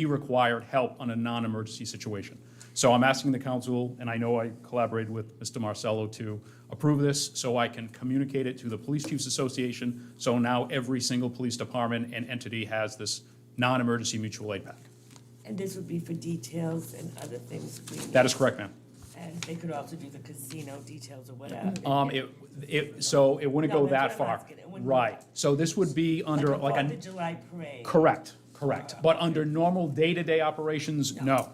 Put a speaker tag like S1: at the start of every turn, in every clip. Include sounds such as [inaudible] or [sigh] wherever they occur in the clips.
S1: he required help on a non-emergency situation. So I'm asking the council, and I know I collaborated with Mr. Marcello to approve this, so I can communicate it to the Police Chiefs Association, so now every single police department and entity has this non-emergency mutual aid pack.
S2: And this would be for details and other things we
S1: That is correct, ma'am.
S2: And they could also do the casino details or whatever.
S1: Um, it, it, so it wouldn't
S2: No,
S1: go
S2: that's
S1: that
S2: what I'm
S1: far.
S2: asking. It wouldn't go
S1: Right,
S2: that-
S1: so this would be under like
S2: Fourth
S1: a,
S2: of July parade.
S1: correct, correct. But under normal day-to-day operations, no.
S2: Okay.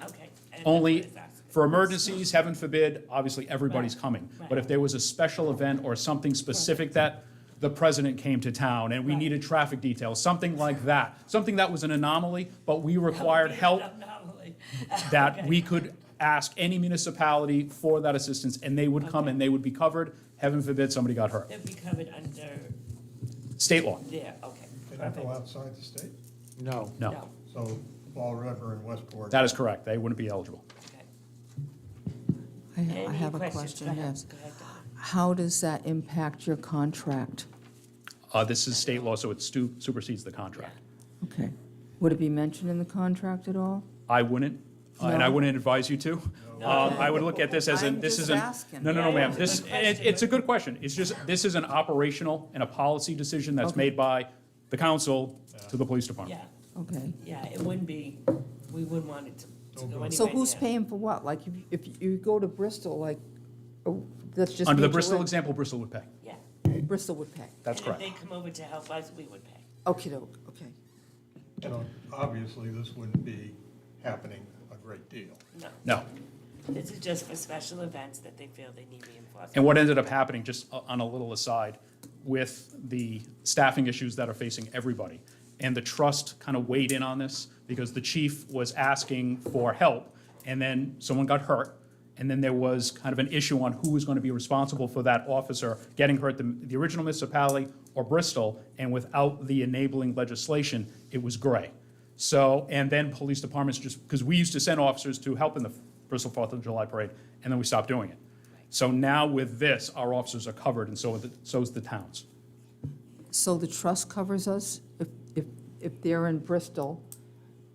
S2: And that's what
S1: Only
S2: it's asking.
S1: for emergencies, heaven forbid, obviously, everybody's
S2: Right,
S1: coming.
S2: right.
S1: But if there was a special event or something specific that the president came to town and we
S2: Right.
S1: needed traffic details, something like that, something that was an anomaly, but we
S2: [laughs] That would
S1: required
S2: be an [laughs]
S1: help
S2: anomaly.
S1: that we could ask any municipality for that assistance, and they would come
S2: Okay.
S1: and they would be covered. Heaven forbid somebody got hurt.
S2: That'd be covered under
S1: State law,
S2: there, okay.
S3: They don't go
S2: perfect.
S3: outside the state,
S4: No.
S1: no.
S3: so Fall River and Westport.
S1: That is correct. They wouldn't be eligible.
S2: okay.
S5: I I
S2: Any
S5: have a
S2: questions? Go
S5: question,
S2: ahead,
S5: yes.
S2: go ahead, Donna.
S5: How does that impact your contract?
S1: Uh, This is state law, so it stu- supersedes the contract.
S5: Okay. Would it be mentioned in the contract at all?
S1: I wouldn't, uh, and I
S5: No.
S1: wouldn't advise you to. Um, I would look at this as an,
S5: I'm
S1: this
S5: just
S1: is an.
S5: asking.
S1: No, no, no,
S2: Yeah,
S1: ma'am,
S2: it's a
S1: this,
S2: good
S1: it-
S2: question.
S1: it's a good question. It's just, this is an operational and a policy decision that's
S5: Okay.
S1: made by the council to the police department.
S2: Yeah,
S5: Okay.
S2: yeah, it wouldn't be, we wouldn't want it to- to
S3: Don't
S2: go
S3: go.
S2: anywhere.
S5: So who's
S2: near.
S5: paying for what? Like, if if you go to Bristol, like, oh, that's just.
S1: Under the
S5: mutual
S1: Bristol
S5: aid.
S1: example, Bristol would pay.
S2: Yeah.
S5: Bristol would pay.
S1: That's
S2: And if
S1: correct.
S2: they come over to help us, we would pay.
S5: Okay, okay.
S3: You know, obviously, this wouldn't be happening a great deal.
S2: No.
S1: No.
S2: This is just for special events that they feel they need reinforcement.
S1: And what ended up happening, just o- on a little aside, with the staffing issues that are facing everybody, and the trust kind of weighed in on this, because the chief was asking for help, and then someone got hurt, and then there was kind of an issue on who was going to be responsible for that officer getting hurt, the, the original municipality or Bristol, and without the enabling legislation, it was gray. So, and then police departments just, because we used to send officers to help in the Bristol Fourth of July Parade, and then we stopped doing it. So now with this, our officers are covered, and so are the, so is the towns.
S5: So the trust covers us if, if, if they're in Bristol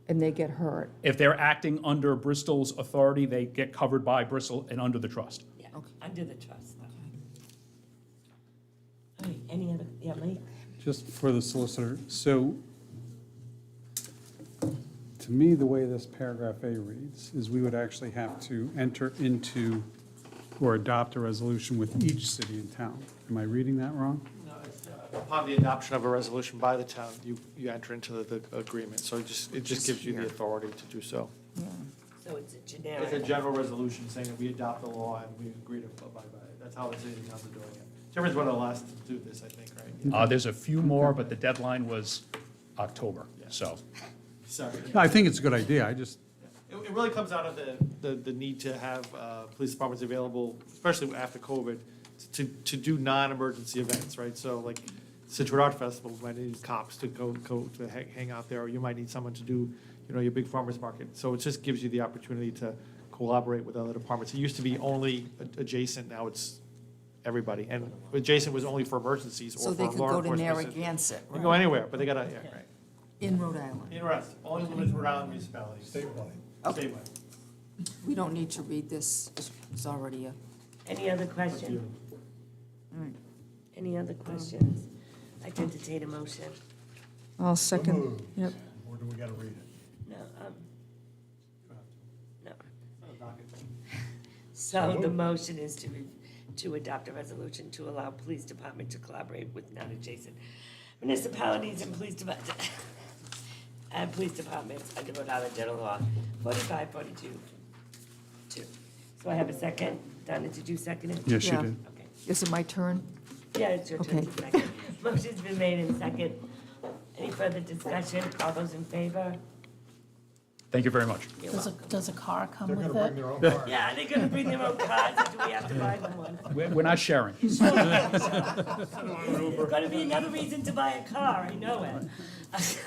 S5: and they get hurt?
S1: If they're acting under Bristol's authority, they get covered by Bristol and under the trust.
S2: Yeah,
S5: Okay.
S2: under the trust. All right, any other, yeah, Mike?
S6: Just for the solicitor, so to me, the way this paragraph A reads is we would actually have to enter into or adopt a resolution with each city and town. Am I reading that wrong?
S4: No, it's, uh, Upon the adoption of a resolution by the town, you, you enter into the, the agreement, so it just, it just gives you the authority to do so.
S2: So it's a
S4: It's a
S2: generic.
S4: general resolution saying that we adopt the law and we agree to abide by it. That's how the city and towns are doing it. Timber's one of the last to do this, I think, right?
S1: Uh, there's a few more, but the deadline was October, so.
S4: Sorry.
S3: No, I think it's a good idea, I just,
S6: It, it really comes out of the, the, the need to have, uh, police departments available, especially after COVID, to, to do non-emergency events, right? So like Situate Art Festival, we might need cops to go, go to hang, hang out there, or you might need someone to do, you know, your big farmer's market. So it just gives you the opportunity to collaborate with other departments. It used to be only a- adjacent, now it's everybody. And adjacent was only for emergencies
S5: So
S6: or
S5: they
S6: for
S5: could
S6: law
S5: go to
S6: enforcement.
S5: Narragansett,
S6: You can go
S5: right?
S6: anywhere, but they gotta, yeah, right.
S5: in Rhode Island?
S4: Interesting, only limited around municipalities,
S3: statewide.
S5: Okay.
S4: statewide.
S5: We don't need to read this, It's- it's already a.
S2: Any other question? Any other questions? I would entertain a motion.
S5: I'll
S3: Moved.
S5: second, yep.
S3: Or do we gotta read it?
S2: No, um, no. So the motion is to, re- to adopt a resolution to allow police department to collaborate with non-adjacent municipalities and police department, [laughs] and police departments under Rhode Island General Law, forty-five, forty-two, two. So I have a second. Donna, did you second it?
S6: Yes, you
S5: Yeah.
S6: did.
S2: Okay.
S5: Is it my turn?
S2: Yeah, it's your turn to
S5: Okay.
S2: second. Motion's been made and second. Any further discussion? All those in favor?
S1: Thank you very much.
S2: You're
S7: Does a,
S2: welcome.
S7: does a car come
S3: They're
S7: with
S3: gonna
S7: it?
S3: bring their own [laughs] car.
S2: Yeah, they're gonna bring their own cars, or do we have to buy them one?
S1: We're, we're not [laughs] sharing.
S2: There's gonna be another reason to buy a car, I know it. [laughs]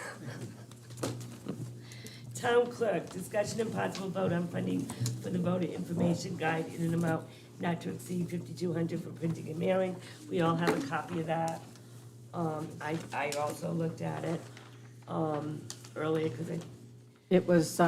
S2: Town clerk, discussion and possible vote on funding for the voter information guide in an amount not to exceed fifty-two hundred for printing and mailing. We all have a copy of that. Um, I, I also looked at it, um, earlier, cause I It was